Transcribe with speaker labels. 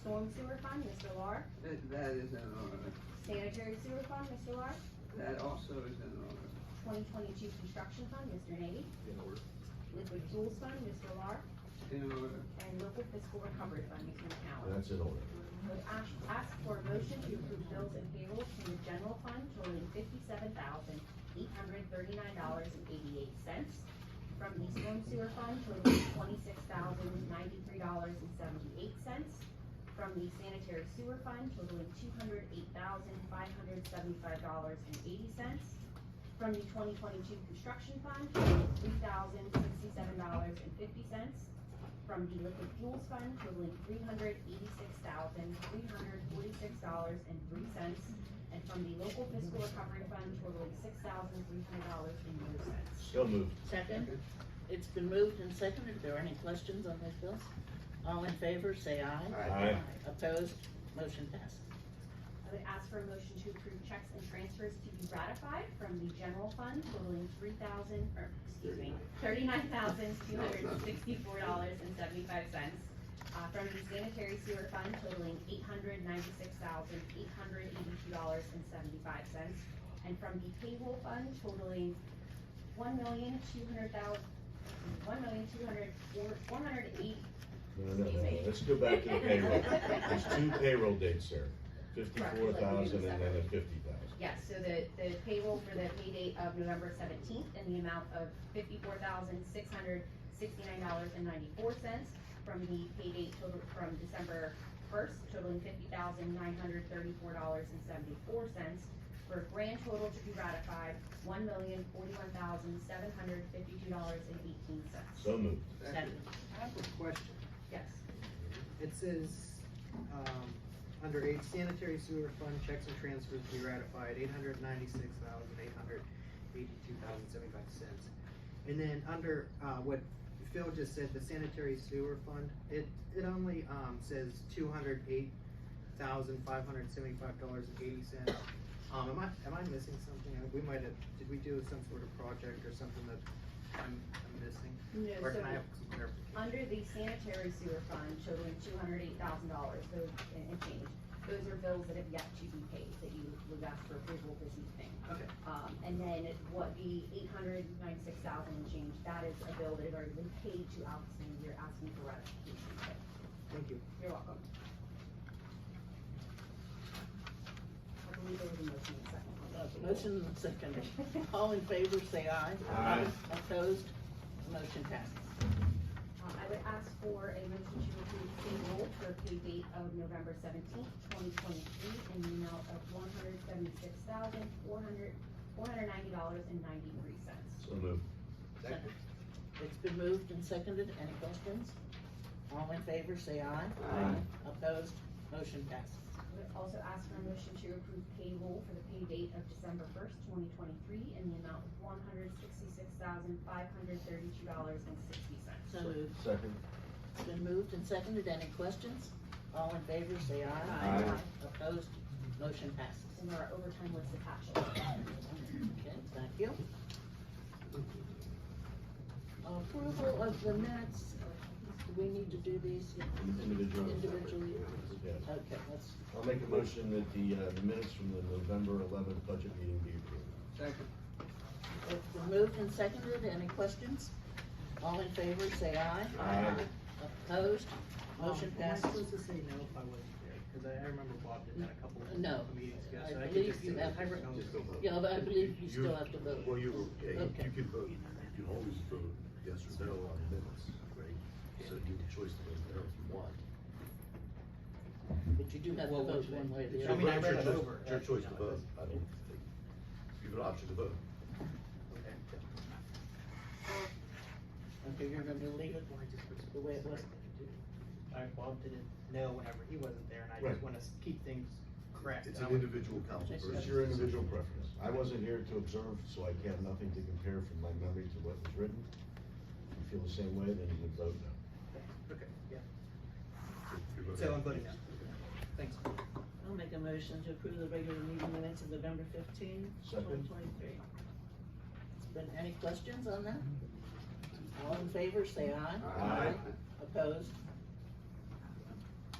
Speaker 1: Storm sewer fund, Mr. Lar.
Speaker 2: That, that is in order.
Speaker 1: Sanitary sewer fund, Mr. Lar.
Speaker 2: That also is in order.
Speaker 1: Twenty twenty-two construction fund, Mr. Nady.
Speaker 3: in order,
Speaker 1: Liquid fuels fund, Mr. Lar.
Speaker 2: In order.
Speaker 1: And local fiscal recovery fund, Mr. McCallum.
Speaker 3: that's in order,
Speaker 1: Ask, ask for a motion to approve bills and payrolls from the general fund totaling fifty-seven thousand, eight hundred thirty-nine dollars and eighty-eight cents. From the storm sewer fund totaling twenty-six thousand, ninety-three dollars and seventy-eight cents. From the sanitary sewer fund totaling two hundred eight thousand, five hundred seventy-five dollars and eighty cents. From the twenty twenty-two construction fund totaling three thousand, sixty-seven dollars and fifty cents from the liquid fuels fund totaling three hundred eighty-six thousand, three hundred forty-six dollars and three cents, and from the local fiscal recovery fund totaling six thousand, three hundred dollars and no cents.
Speaker 3: so moved,
Speaker 4: Second, it's been moved and seconded, If there are any questions on those bills? All in favor, say aye.
Speaker 3: Aye.
Speaker 4: Opposed, motion passes.
Speaker 1: I would ask for a motion to approve checks and transfers to be ratified from the general fund totaling three thousand, or, excuse me, thirty-nine thousand, two hundred and sixty-four dollars and seventy-five cents. Uh, from the sanitary sewer fund totaling eight hundred ninety-six thousand, eight hundred eighty-two dollars and seventy-five cents. And from the payroll fund totaling one million, two hundred thousand, one million, two hundred, four, four hundred eight,
Speaker 3: no, no, no, no. let's go back to the payroll, there's two payroll dates there, fifty-four thousand and then a fifty thousand.
Speaker 1: Yes, so the, the payroll for the pay date of November seventeenth in the amount of fifty-four thousand, six hundred, sixty-nine dollars and ninety-four cents from the pay date total from December first totaling fifty thousand, nine hundred, thirty-four dollars and seventy-four cents for a grand total to be ratified, one million, forty-one thousand, seven hundred, fifty-two dollars and eighteen cents.
Speaker 3: So moved,
Speaker 4: Second,
Speaker 5: I have a question.
Speaker 1: Yes,
Speaker 5: It says, um, under eight sanitary sewer fund checks and transfers to be ratified, eight hundred ninety-six thousand, eight hundred eighty-two thousand, seventy-five cents. And then under, uh, what Phil just said, the sanitary sewer fund, it, it only, um, says two hundred eight thousand, five hundred seventy-five dollars and eighty cents. Um, am I, am I missing something? We might have, did we do some sort of project or something that I'm, I'm missing?
Speaker 1: no,
Speaker 5: Or
Speaker 1: so
Speaker 5: can I have some clarification?
Speaker 1: Under the sanitary sewer fund totaling two hundred eight thousand dollars, those, and and change, those are bills that have yet to be paid, that you would ask for approval this evening.
Speaker 5: Okay.
Speaker 1: Um, and then what the eight hundred ninety-six thousand and change, that is a bill that had already been paid to Albertson, you're asking for ratification. So,
Speaker 5: Thank you.
Speaker 1: You're welcome. I believe there was a motion in a second.
Speaker 4: motion and second, all in favor, say aye.
Speaker 3: Aye.
Speaker 4: Opposed, motion passes.
Speaker 1: Uh, I would ask for a motion to approve payroll for pay date of November seventeenth, twenty twenty-three, in the amount of one hundred seventy-six thousand, four hundred, four hundred ninety dollars and ninety-three cents.
Speaker 3: so moved,
Speaker 4: Second. It's been moved and seconded, any questions? All in favor, say aye.
Speaker 3: Aye.
Speaker 4: Opposed, motion passes.
Speaker 1: I would also ask for a motion to approve payroll for the pay date of December first, twenty twenty-three, in the amount of one hundred sixty-six thousand, five hundred thirty-two dollars and sixty cents.
Speaker 4: So moved.
Speaker 3: second,
Speaker 4: It's been moved and seconded, any questions? All in favor, say aye.
Speaker 3: Aye.
Speaker 4: Opposed, motion passes.
Speaker 1: And our overtime was attached.
Speaker 4: Okay, thank you. Approval of the minutes, do we need to do these
Speaker 3: individual.
Speaker 4: individually?
Speaker 3: Yes.
Speaker 4: Okay, let's,
Speaker 3: I'll make a motion that the, uh, the minutes from the November eleventh budget meeting be approved.
Speaker 2: Second.
Speaker 4: it's been moved and seconded, any questions? All in favor, say aye.
Speaker 3: Aye.
Speaker 4: Opposed, motion
Speaker 5: Um, am I
Speaker 4: passes.
Speaker 5: supposed to say no if I wasn't there? Cause I, I remember Bob did that a couple
Speaker 4: No.
Speaker 5: of meetings ago,
Speaker 4: I
Speaker 5: so I could
Speaker 4: believe
Speaker 5: just.
Speaker 4: you
Speaker 5: say-
Speaker 4: have-
Speaker 5: I re- no.
Speaker 6: Just don't vote.
Speaker 4: Yeah, but I believe
Speaker 6: You-
Speaker 4: you still have to vote.
Speaker 6: Well, you, yeah, you
Speaker 4: Okay.
Speaker 6: you can vote, you can always vote yes or no on minutes, right? So you have a choice to vote no if you want.
Speaker 4: But you do have to
Speaker 5: Well,
Speaker 4: vote
Speaker 5: which
Speaker 4: one way or the
Speaker 5: I
Speaker 6: Your
Speaker 4: other.
Speaker 5: mean, I
Speaker 6: vote- your
Speaker 5: read it
Speaker 6: choice-
Speaker 5: over.
Speaker 6: It's your choice to vote, I don't think, you have an option to vote.
Speaker 5: Okay.
Speaker 4: Okay, you're gonna leave it
Speaker 5: Well, I just-
Speaker 4: the way it was?
Speaker 5: I, Bob did it no whenever he wasn't there, and I
Speaker 3: Right.
Speaker 5: just wanna s- keep things correct.
Speaker 6: It's
Speaker 5: I
Speaker 6: an
Speaker 5: would-
Speaker 6: individual council
Speaker 4: It's
Speaker 6: versus.
Speaker 3: It's your individual preference. I wasn't here to observe, so I have nothing to compare from my memory to what was written. If you feel the same way, then you would vote no.
Speaker 5: Okay, yeah,
Speaker 6: You're
Speaker 5: so I'm voting no. Thanks.
Speaker 4: I'll make a motion to approve the regular meeting minutes of November 15,
Speaker 3: Second.
Speaker 4: 2023. Been any questions on that? All in favor, say aye.
Speaker 3: Aye.
Speaker 4: Opposed,